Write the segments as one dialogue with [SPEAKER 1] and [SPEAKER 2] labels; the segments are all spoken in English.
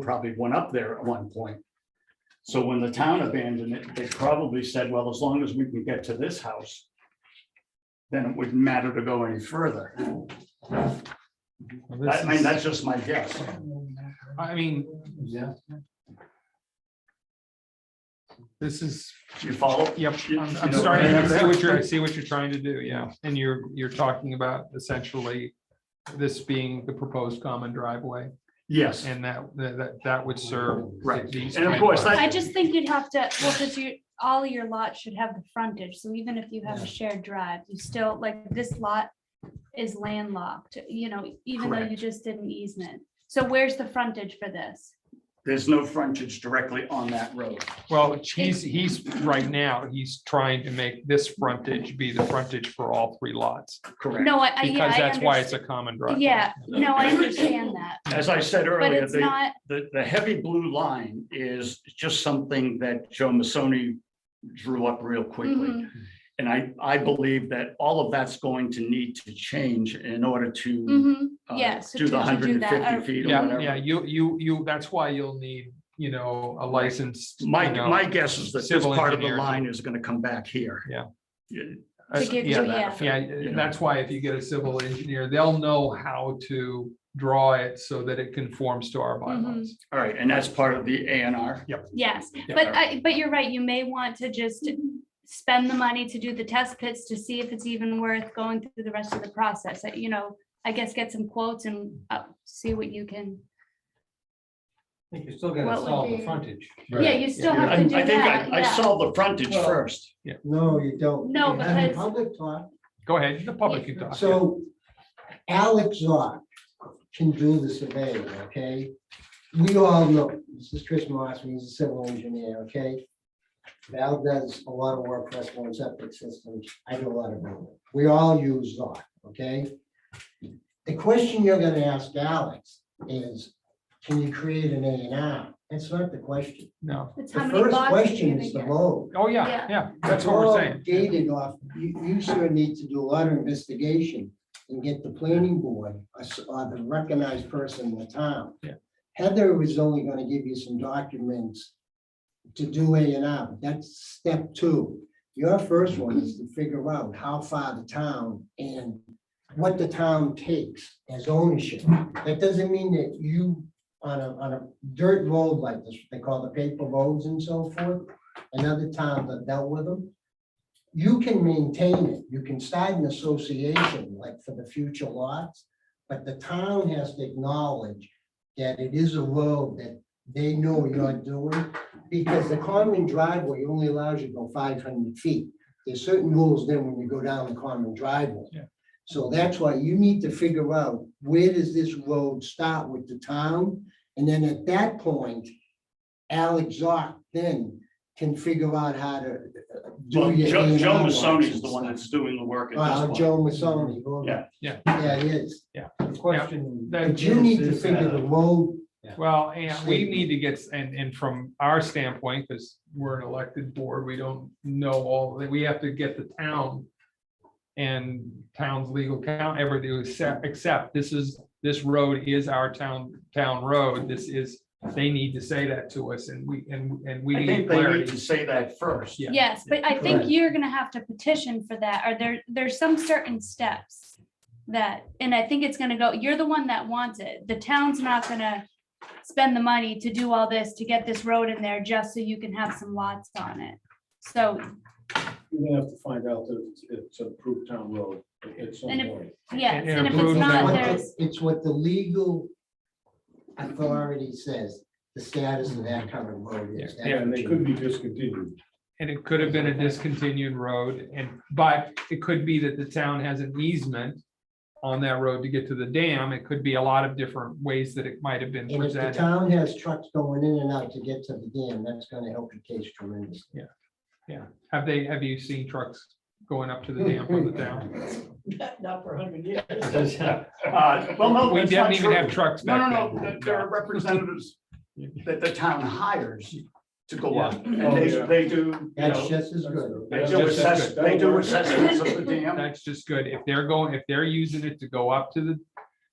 [SPEAKER 1] probably went up there at one point. So when the town abandoned it, they probably said, well, as long as we can get to this house, then it wouldn't matter to go any further.
[SPEAKER 2] Well,
[SPEAKER 1] I
[SPEAKER 2] this
[SPEAKER 1] mean,
[SPEAKER 2] is-
[SPEAKER 1] that's just my guess.
[SPEAKER 2] I mean,
[SPEAKER 1] Yeah.
[SPEAKER 2] this is,
[SPEAKER 1] You follow?
[SPEAKER 2] yep,
[SPEAKER 1] You-
[SPEAKER 2] I'm,
[SPEAKER 1] you
[SPEAKER 2] I'm
[SPEAKER 1] know,
[SPEAKER 2] starting to
[SPEAKER 1] that's-
[SPEAKER 2] see what you're, I see what you're trying to do, yeah, and you're, you're talking about essentially. This being the proposed common driveway
[SPEAKER 1] Yes,
[SPEAKER 2] and that, that, that would serve.
[SPEAKER 1] Right,
[SPEAKER 2] these
[SPEAKER 1] and of
[SPEAKER 2] three
[SPEAKER 1] course,
[SPEAKER 2] lots.
[SPEAKER 1] that-
[SPEAKER 3] I just think you'd have to, well, because you, all your lots should have the frontage, so even if you have a shared drive, you still, like, this lot is landlocked, you know, even though you
[SPEAKER 1] Correct.
[SPEAKER 3] just did an easement. So where's the frontage for this?
[SPEAKER 1] there's no frontage directly on that road.
[SPEAKER 2] Well, he's, he's, right now, he's trying to make this frontage be the frontage for all three lots.
[SPEAKER 1] Correct.
[SPEAKER 3] No, I, I- Uh, yeah,
[SPEAKER 2] Because
[SPEAKER 3] I
[SPEAKER 2] that's why it's
[SPEAKER 3] understand.
[SPEAKER 2] a common driveway.
[SPEAKER 3] Yeah, no, I understand that,
[SPEAKER 1] As I said
[SPEAKER 3] but
[SPEAKER 1] earlier,
[SPEAKER 3] it's
[SPEAKER 1] the,
[SPEAKER 3] not,
[SPEAKER 1] the, the heavy blue line is just something that Joe Masoni drew up real quickly.
[SPEAKER 2] Mm-hmm.
[SPEAKER 3] mhm,
[SPEAKER 1] And I, I believe that all of that's going to need to change in order to
[SPEAKER 3] mhm,
[SPEAKER 1] uh,
[SPEAKER 3] yeah, so
[SPEAKER 1] do the
[SPEAKER 3] to- to
[SPEAKER 1] hundred
[SPEAKER 3] do
[SPEAKER 1] and
[SPEAKER 3] that,
[SPEAKER 1] fifty
[SPEAKER 3] or-
[SPEAKER 1] feet or
[SPEAKER 2] Yeah, yeah,
[SPEAKER 1] whatever.
[SPEAKER 2] you, you, you, that's why you'll need, you know, a licensed. you
[SPEAKER 1] My,
[SPEAKER 2] know,
[SPEAKER 1] my guess is that this
[SPEAKER 2] civil
[SPEAKER 1] part of the
[SPEAKER 2] engineer.
[SPEAKER 1] line is gonna come back here.
[SPEAKER 2] Yeah.
[SPEAKER 1] Yeah.
[SPEAKER 2] uh,
[SPEAKER 3] To give
[SPEAKER 2] yeah,
[SPEAKER 3] you,
[SPEAKER 1] that
[SPEAKER 3] yeah,
[SPEAKER 1] effect.
[SPEAKER 2] Yeah,
[SPEAKER 1] you know.
[SPEAKER 2] and that's why if you get a civil engineer, they'll know how to draw it so that it conforms to our bylaws.
[SPEAKER 1] All right, and that's part of the A and R.
[SPEAKER 3] yes.
[SPEAKER 2] Yeah.
[SPEAKER 3] But I, but you're right, you may want to just spend the money to do the test pits to see if it's even worth going through the rest of the process, Uh, you know, I guess get some quotes and uh, see what you can,
[SPEAKER 4] I think you're still
[SPEAKER 3] What
[SPEAKER 4] gonna
[SPEAKER 3] would
[SPEAKER 4] solve the
[SPEAKER 3] be-
[SPEAKER 4] frontage.
[SPEAKER 3] yeah, you still
[SPEAKER 1] I
[SPEAKER 3] have
[SPEAKER 1] I
[SPEAKER 3] to do
[SPEAKER 1] think
[SPEAKER 3] that,
[SPEAKER 1] I, I
[SPEAKER 3] yeah.
[SPEAKER 1] saw the frontage
[SPEAKER 4] Well-
[SPEAKER 1] first.
[SPEAKER 5] No, you don't.
[SPEAKER 3] No,
[SPEAKER 5] You have
[SPEAKER 3] because-
[SPEAKER 5] Public talk,
[SPEAKER 2] Go ahead, the public can talk.
[SPEAKER 5] so Alex Zoc can do the surveying, okay? We all know, this is Chris Moss, he's a civil engineer, okay? Val does a lot of work for us on septic systems, I do a lot of work, we all use Zoc, okay? The question you're gonna ask Alex is, can you create an A and R? That's not the question.
[SPEAKER 2] No,
[SPEAKER 3] It's how
[SPEAKER 5] The
[SPEAKER 3] many
[SPEAKER 5] first
[SPEAKER 3] lots you're
[SPEAKER 5] question
[SPEAKER 3] gonna
[SPEAKER 5] is the
[SPEAKER 3] get.
[SPEAKER 5] road.
[SPEAKER 2] oh, yeah,
[SPEAKER 3] Yeah.
[SPEAKER 2] yeah, that's what we're
[SPEAKER 5] all
[SPEAKER 2] saying.
[SPEAKER 5] Gated off, you, you sure need to do a lot of investigation and get the planning board or s- or the recognized person in the town.
[SPEAKER 2] Yeah.
[SPEAKER 5] Heather was only gonna give you some documents to do A and R, that's step two. Your first one is to figure out how far the town and what the town takes as ownership. That doesn't mean that you, on a, on a dirt road like this, they call the paper roads and so forth, another town that dealt with them. You can maintain it, you can start an association, like for the future lots, but the town has to acknowledge that it is a road that they know you're doing, because the common driveway only allows you to go five hundred feet. There's certain rules then when you go down the common driveway.
[SPEAKER 2] Yeah.
[SPEAKER 5] So that's why you need to figure out, where does this road start with the town? And then at that point, Alex Zoc then can figure out how to. uh, do
[SPEAKER 1] Well,
[SPEAKER 5] your
[SPEAKER 1] Joe, Joe
[SPEAKER 5] A&R
[SPEAKER 1] Masoni is
[SPEAKER 5] lines.
[SPEAKER 1] the one that's doing the work at
[SPEAKER 5] Uh,
[SPEAKER 1] this point.
[SPEAKER 5] Joe Masoni. who-
[SPEAKER 1] Yeah.
[SPEAKER 2] Yeah.
[SPEAKER 5] Yeah, he is.
[SPEAKER 4] The question.
[SPEAKER 2] that-
[SPEAKER 5] But you need to
[SPEAKER 4] is,
[SPEAKER 5] figure
[SPEAKER 4] uh,
[SPEAKER 5] the road,
[SPEAKER 2] Well, and we need to get, and, and from our standpoint, because we're an elected board, we don't know all, we have to get the town and town's legal count ever do accept, accept, this is, this road is our town, town road, this is, they need to say that to us, and we, and, and we
[SPEAKER 1] I
[SPEAKER 2] need
[SPEAKER 1] think they need
[SPEAKER 2] clarity.
[SPEAKER 1] to say that first.
[SPEAKER 2] Yeah.
[SPEAKER 3] Yes, but I think
[SPEAKER 5] Correct.
[SPEAKER 3] you're gonna have to petition for that, or there, there's some certain steps that, and I think it's gonna go, you're the one that wants it, the town's not gonna spend the money to do all this, to get this road in there, just so you can have some lots on it. So,
[SPEAKER 6] You're gonna have to find out that it's- it's an approved town road at some
[SPEAKER 3] And if-
[SPEAKER 6] point.
[SPEAKER 3] yes,
[SPEAKER 2] And-
[SPEAKER 3] and
[SPEAKER 2] and
[SPEAKER 3] if
[SPEAKER 2] approve
[SPEAKER 3] it's
[SPEAKER 2] that.
[SPEAKER 3] not,
[SPEAKER 5] what the-
[SPEAKER 3] there's,
[SPEAKER 5] it's what the legal authority says, the status of that covered road is. That's
[SPEAKER 6] And
[SPEAKER 5] what
[SPEAKER 6] they
[SPEAKER 5] you-
[SPEAKER 6] could be discontinued.
[SPEAKER 2] And it could have been a discontinued road, and, but it could be that the town has an easement on that road to get to the dam, it could be a lot of different ways that it might have been
[SPEAKER 5] And if the
[SPEAKER 2] presented.
[SPEAKER 5] town has trucks going in and out to get to the dam, that's gonna help your case tremendously.
[SPEAKER 2] Have they, have you seen trucks going up to the dam from the town?
[SPEAKER 4] Not for a hundred years.
[SPEAKER 1] Uh, Well, no,
[SPEAKER 2] We
[SPEAKER 1] that's not
[SPEAKER 2] didn't even
[SPEAKER 1] true.
[SPEAKER 2] have trucks
[SPEAKER 1] No,
[SPEAKER 2] back then.
[SPEAKER 1] no, no, th- there are representatives that the town hires to go up, and they,
[SPEAKER 6] Yeah.
[SPEAKER 1] they do, you
[SPEAKER 5] Oh, That's
[SPEAKER 1] know,
[SPEAKER 5] just as good.
[SPEAKER 1] they
[SPEAKER 2] That's
[SPEAKER 1] do
[SPEAKER 2] just as
[SPEAKER 1] assess,
[SPEAKER 2] good.
[SPEAKER 1] they do assessments of the dam.
[SPEAKER 2] That's just good. If they're going, if they're using it to go up to the,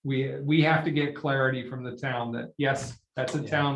[SPEAKER 2] we, we have to get clarity from the town that, yes, that's a town